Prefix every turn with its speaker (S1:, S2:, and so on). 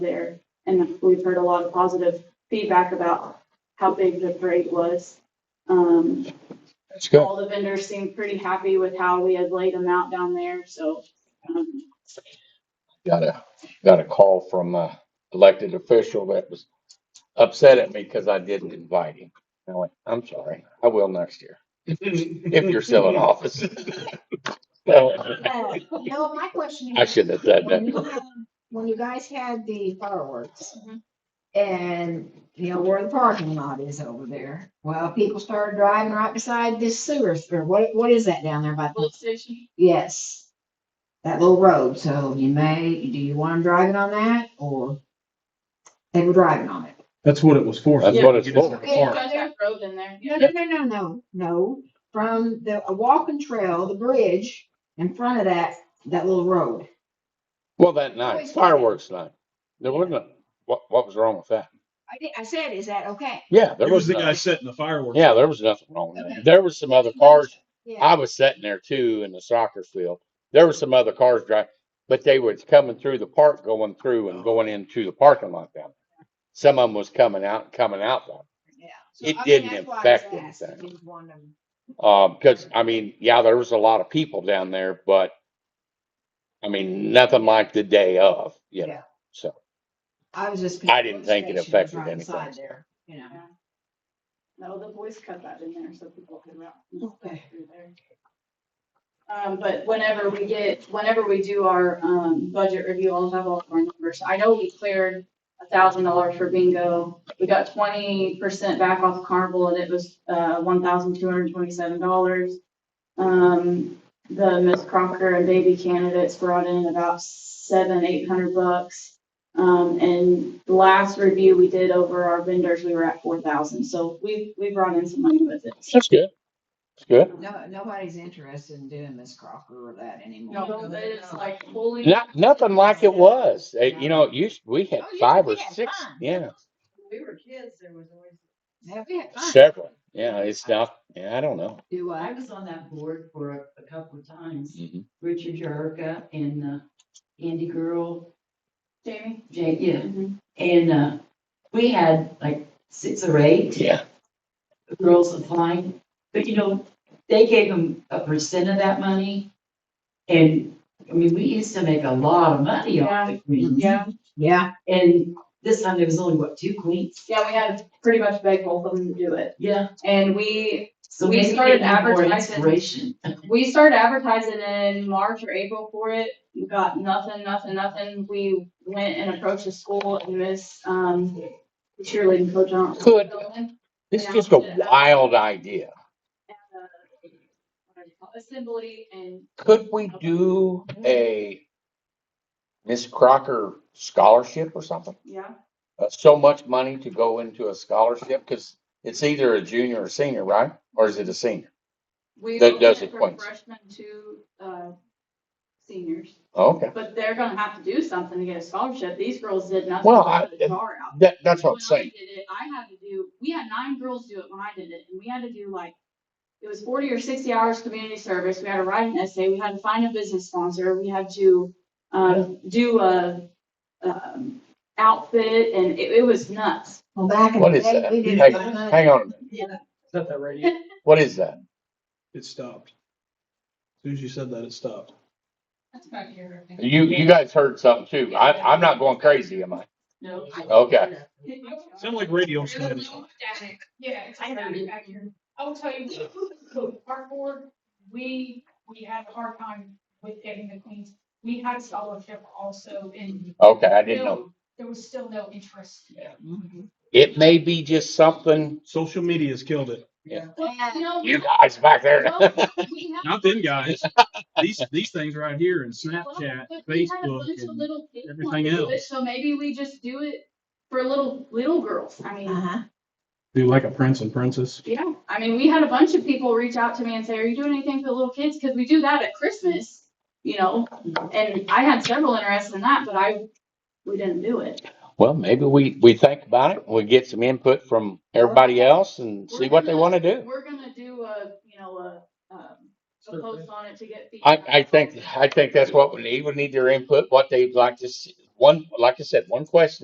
S1: there. And we've heard a lot of positive feedback about how big the parade was. Um,
S2: That's good.
S1: all the vendors seemed pretty happy with how we had laid them out down there, so, um,
S2: Got a, got a call from a elected official that was upset at me because I didn't invite him. I went, I'm sorry, I will next year, if you're still in office. So,
S3: Uh, No, my question
S2: I
S3: is,
S2: shouldn't have said
S3: when
S2: that.
S3: you had- when you guys had the fireworks
S1: Mhm.
S3: and, you know, where the parking lot is over there, well, people started driving right beside this sewer, or what, what is that down there by? the-
S1: police station.
S3: Yes. That little road, so you may, do you want them driving on that or they were driving on it?
S4: That's what it was for.
S2: That's what it's for.
S3: Yeah.
S1: There's that road in there.
S3: No, no, no, no, no, no, from the, a walking trail, the bridge in front of that, that little road.
S2: Well, that night, fireworks night, there wasn't, a- what, what was wrong with that?
S3: I did, I said, is that okay?
S2: Yeah, there
S4: It was
S2: was
S4: the guy
S2: nothing.
S4: setting the fireworks.
S2: Yeah, there was nothing wrong with that. There was some other cars
S3: Yeah.
S2: I was sitting there too in the soccer field. There were some other cars driving, but they was coming through the park, going through
S3: Oh.
S2: and going into the parking lot down. there. Some of them was coming out, coming out though.
S3: So,
S2: It
S3: I mean,
S2: didn't
S3: that's why I
S2: affect
S3: was asked if
S2: anything.
S3: you want them-
S2: Um, cause I mean, yeah, there was a lot of people down there, but I mean, nothing like the day of, you know,
S3: Yeah.
S2: so.
S3: I was just.
S2: I didn't think it
S3: Station was
S2: affected
S3: right
S2: anything.
S3: beside there, You know,
S1: No, the boys cut that in there so people could route
S3: Okay.
S1: through there. Um, but whenever we get, whenever we do our, um, budget review, I'll have all of our numbers. I know we cleared a thousand dollars for bingo. We got twenty percent back off carnival and it was, uh, one thousand two hundred and twenty-seven dollars. Um, the Miss Crocker and baby candidates brought in about seven, eight hundred bucks. Um, and the last review we did over our vendors, we were at four thousand, so we, we brought in some money with it.
S2: That's good. That's good.
S3: no, nobody's interested in doing Miss Crocker or that anymore.
S1: No, but it's like fully.
S2: Not, nothing like it was. Uh, You know, it used, we had
S3: Oh, yeah,
S2: five
S3: we
S2: or
S3: had
S2: six,
S3: fun.
S2: yeah,
S5: When we were kids, there was always,
S3: Have you had fun?
S2: several. Yeah, it's not, yeah, I don't know.
S3: Do
S5: I
S3: I?
S5: was on that board for a, a couple of times,
S2: Mhm.
S5: Richard Jerka and, uh, Andy Girl,
S1: Jamie?
S5: Jay, yeah,
S1: Mhm.
S5: and, uh, we had like six or eight
S2: Yeah,
S5: girls applying, but you know, they gave them a percent of that money. And, I mean, we used to make a lot of money off the queens,
S1: Yeah,
S3: Yeah,
S5: and this time there was only, what, two queens?
S1: yeah, we had pretty much beg both of them to do it.
S5: Yeah.
S1: And we,
S5: So
S1: We
S5: maybe they
S1: started
S5: need more
S1: advertising.
S5: inspiration.
S1: we started advertising in March or April for it. We got nothing, nothing, nothing. We went and approached the school and Miss, um, cheerleading coach. I don't-
S2: Good. it's
S1: Yeah.
S2: just a wild idea.
S1: uh, Assembly and
S2: Could we do a Miss Crocker scholarship or something?
S1: yeah,
S2: Uh, So much money to go into a scholarship, because it's either a junior or senior, right? Or is it a senior?
S1: we
S2: That
S1: went
S2: does it
S1: from
S2: once.
S1: freshmen to uh, seniors.
S2: Okay,
S1: But they're gonna have to do something to get a scholarship. These girls did nothing.
S2: Well,
S1: but
S2: I-
S1: put a jar out.
S2: that, that's what I'm
S1: When I
S2: saying.
S1: did it, I had to do, we had nine girls do it when I did it, and we had to do like, it was forty or sixty hours community service, we had to write an essay, we had to find a business sponsor, we had to, um, do a, um, outfit, and it, it was nuts.
S3: well, back in the
S2: What is
S3: day,
S2: that?
S3: we did.
S2: Hey,
S3: a lot of-
S2: Hang on, a minute.
S4: Is that that radio?
S2: what is that?
S4: It stopped. As Soon as you said that, it stopped.
S1: That's about your.
S2: You, you guys heard something too. I, I'm not going crazy, am I?
S5: No.
S2: Okay.
S4: Sounded like radio static.
S6: Yeah, it's like that back here. I will tell you, our board, we, we had a hard time with getting the queens. We had scholarship also and
S2: Okay, I didn't know.
S6: there was still no interest.
S3: Mm-hmm.
S2: It may be just something,
S4: Social media's killed it.
S1: Well, you know,
S2: you guys back there.
S1: well, we had-
S4: Not them guys. These, these things right here and Snapchat,
S1: Well, but we had a
S4: Facebook.
S1: bunch of
S4: and-
S1: little kids
S4: everything
S1: wanting to do it,
S4: else.
S1: So maybe we just do it for little, little girls, I mean.
S3: Uh-huh.
S4: Do like a prince and princess.
S1: Yeah, I mean, we had a bunch of people reach out to me and say, are you doing anything for the little kids? Cause we do that at Christmas, you know? And I had several interests in that, but I, we didn't do it.
S2: Well, maybe we, we think about it, we get some input from everybody else and see what they wanna do.
S1: We're gonna do a, you know, a, um, a post on it to get.
S2: I,
S1: feedback.
S2: I think, I think that's what we need, we need their input, what they'd like to, see- one, like I said, one question